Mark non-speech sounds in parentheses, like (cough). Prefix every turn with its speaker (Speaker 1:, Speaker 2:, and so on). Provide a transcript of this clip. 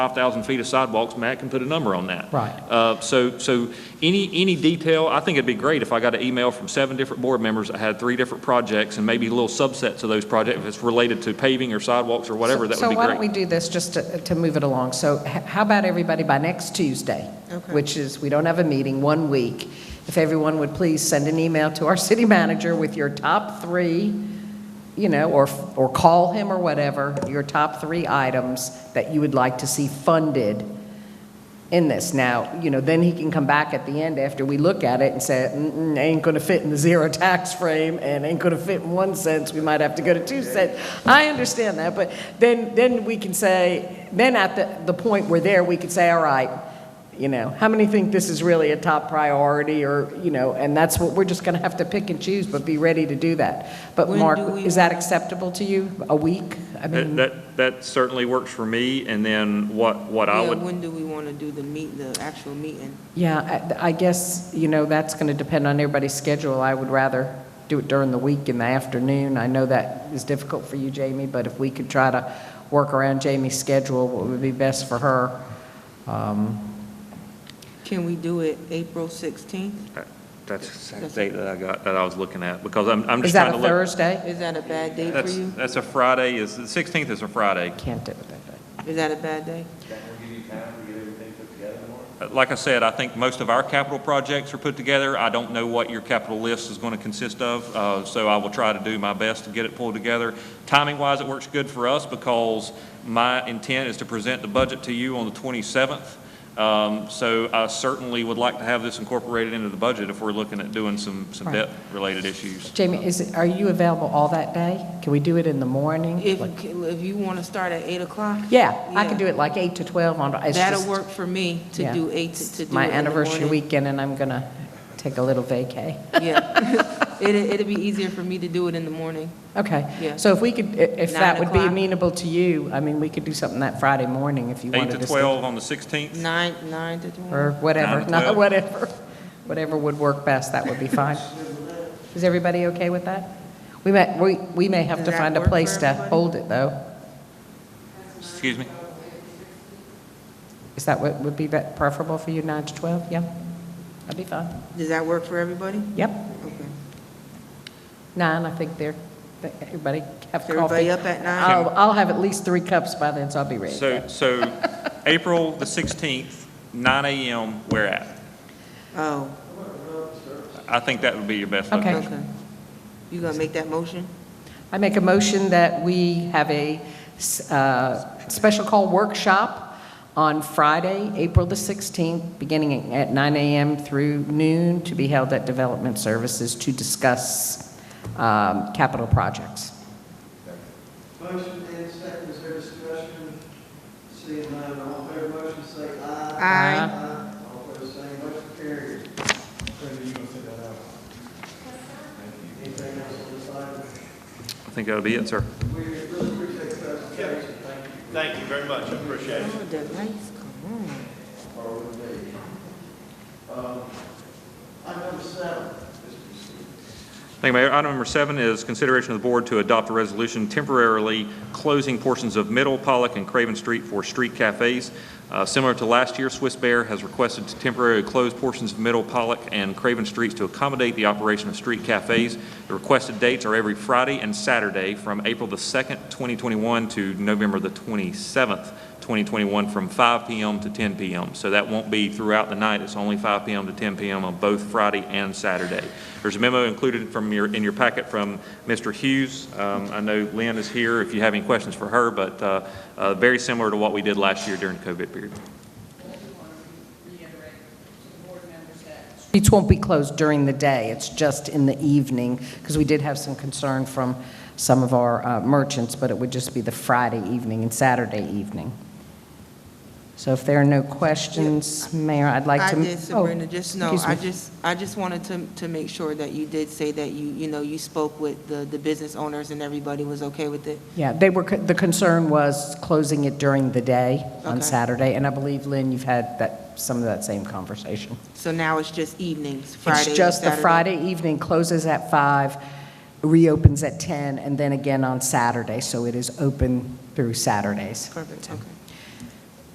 Speaker 1: 5,000 feet of sidewalks, Matt can put a number on that.
Speaker 2: Right.
Speaker 1: Uh, So, so any, any detail, I think it'd be great if I got an email from seven different board members that had three different projects and maybe little subsets of those projects, if it's related to paving or sidewalks or whatever, that would be
Speaker 2: So why don't we
Speaker 1: great.
Speaker 2: do this, just to, to move it along? So h- how about everybody by next Tuesday?
Speaker 3: Okay.
Speaker 2: Which is, we don't have a meeting, one week. If everyone would please send an email to our (laughs) city manager with your top three, you know, or, or call him or whatever, your top three items that you would like to see funded in this. Now, you know, then he can come back at the end after we look at it and say, "Mm-mm, ain't gonna fit in the zero tax frame and ain't gonna fit in one cents, we might have to go to two cents. I understand that, but then, then we can say, then at the, the point we're there, we could say, all right, you know, how many think this is really a top priority or, you know, and that's what, we're just gonna have to pick and choose, but be ready to do that. But
Speaker 3: When
Speaker 2: Mark,
Speaker 3: do we
Speaker 2: is that acceptable to you? A week? I
Speaker 1: That,
Speaker 2: mean,
Speaker 1: that- that certainly works for me, and then what, what I
Speaker 3: Yeah,
Speaker 1: would,
Speaker 3: When do we want to do the meet, the actual meeting?
Speaker 2: Yeah, I I guess, you know, that's going to depend on everybody's schedule. I would rather do it during the week in the afternoon. I know that is difficult for you, Jamie, but if we could try to work around Jamie's schedule, what would be best for her? Um,
Speaker 3: Can we do it April 16th?
Speaker 1: that's the exact date that I got, that I was looking at, because I'm, I'm
Speaker 2: Is
Speaker 1: just
Speaker 2: that
Speaker 1: trying
Speaker 2: a
Speaker 1: to look.
Speaker 2: Thursday?
Speaker 3: Is that a bad day for
Speaker 1: That's,
Speaker 3: you?
Speaker 1: that's a Friday, is, the 16th is a Friday.
Speaker 2: Can't do it that day.
Speaker 3: Is that a bad day?
Speaker 1: Uh, Like I said, I think most of our capital projects are put together. I don't know what your capital list is going to consist of, uh, so I will try to do my best to get it pulled together. Timing-wise, it works good for us because my intent is to present the budget to you on the 27th. Um, So I certainly would like to have this incorporated into the budget if we're looking at doing some, some
Speaker 2: Right.
Speaker 1: debt-related issues.
Speaker 2: Jamie, is, it? are you available all that day? Can we do it in the morning?
Speaker 3: If,
Speaker 2: Like-
Speaker 3: if you want to start at 8 o'clock?
Speaker 2: Yeah, I could
Speaker 3: Yeah.
Speaker 2: do it like 8 to 12 on, it's
Speaker 3: That'll
Speaker 2: just
Speaker 3: work for me to
Speaker 2: Yeah.
Speaker 3: do 8, to to do it
Speaker 2: my
Speaker 3: in the
Speaker 2: anniversary
Speaker 3: morning.
Speaker 2: weekend, and I'm going to take a little vacay.
Speaker 3: Yeah. (laughs) It, it'd be easier for me to do it in the morning.
Speaker 2: Okay,
Speaker 3: Yeah.
Speaker 2: so if we could, i- if
Speaker 3: Nine
Speaker 2: that would be
Speaker 3: o'clock.
Speaker 2: amenable to you, I mean, we could do something that Friday morning if you
Speaker 1: 8
Speaker 2: wanted
Speaker 1: to
Speaker 2: to. stay-
Speaker 1: 12 on the 16th?
Speaker 3: 9, 9 to 12?
Speaker 2: Or whatever,
Speaker 1: Nine to
Speaker 2: not
Speaker 1: 12.
Speaker 2: whatever, whatever would work best, that would be fine. Is everybody okay with that? We may, we, we may have
Speaker 3: Does
Speaker 2: to
Speaker 3: that
Speaker 2: find a
Speaker 3: work for
Speaker 2: place to
Speaker 3: everybody?
Speaker 2: hold it, though.
Speaker 1: Excuse me?
Speaker 2: Is that what would be bet- preferable for you, nine to 12? Yeah, that'd be fine.
Speaker 3: Does that work for everybody?
Speaker 2: Yep,
Speaker 3: Okay.
Speaker 2: nine, I think they're, they- everybody have
Speaker 3: Is
Speaker 2: coffee.
Speaker 3: everybody up at nine?
Speaker 2: I'll, I'll have at least three cups by then, so I'll be ready. to
Speaker 1: So,
Speaker 2: go.
Speaker 1: so April the 16th, 9 AM, where at?
Speaker 3: Oh,
Speaker 1: I think that would be your best.
Speaker 2: Okay.
Speaker 3: okay. You gonna make that motion?
Speaker 2: I make a motion that we have a uh, special call workshop on Friday, April the 16th, beginning at 9 a.m. through noon, to be held at Development Services to discuss um, capital projects.
Speaker 4: Motion and second, is there discussion? Seeing none, all in favor of the motion, say aye.
Speaker 3: Aye.
Speaker 4: All opposed, same, motion carries. Brenda, you gonna send that out? Anything else on this item?
Speaker 1: I think that'll be it, sir.
Speaker 4: We really appreciate the presentation, thank you.
Speaker 5: Thank you very much, I appreciate it.
Speaker 3: Oh, the lights, come on.
Speaker 4: Item number seven,
Speaker 1: Thank you, Mayor. Item number seven is consideration of the board to adopt a resolution temporarily closing portions of Middle, Pollock, and Craven Street for street cafes. Uh, Similar to last year, Swiss Bear has requested to temporarily close portions of Middle, Pollock, and Craven Streets to accommodate the operation of street cafes. The requested dates are every Friday and Saturday from April the 2nd, 2021 to November the 27th, 2021, from 5 PM to 10 PM. So that won't be throughout the night, it's only 5 PM to 10 PM on both Friday and Saturday. There's a memo included from your, in your packet from Mr. Hughes. Um, I know Lynn is here if you have any questions for her, but uh, uh, very similar to what we did last year during the COVID period.
Speaker 2: Streets won't be closed during the day, it's just in the evening, because we did have some concern from some of our uh, merchants, but it would just be the Friday evening and Saturday evening. So if there are no questions, Mayor, I'd like
Speaker 3: I
Speaker 2: to...
Speaker 3: did,
Speaker 2: oh,
Speaker 3: Sabrina, just, no,
Speaker 2: excuse
Speaker 3: I
Speaker 2: me.
Speaker 3: just, I just wanted to, to make sure that you did say that you, you know, you spoke with the, the business owners and everybody was okay with it.
Speaker 2: Yeah, they were, the concern was closing it during the day on
Speaker 3: Okay.
Speaker 2: Saturday, and I believe, Lynn, you've had that, some of that same conversation.
Speaker 3: So now it's just evenings, Friday
Speaker 2: It's just the
Speaker 3: Saturday?
Speaker 2: Friday evening closes at five, reopens at ten, and then again on Saturday, so it is open through Saturdays.
Speaker 3: Perfect, okay.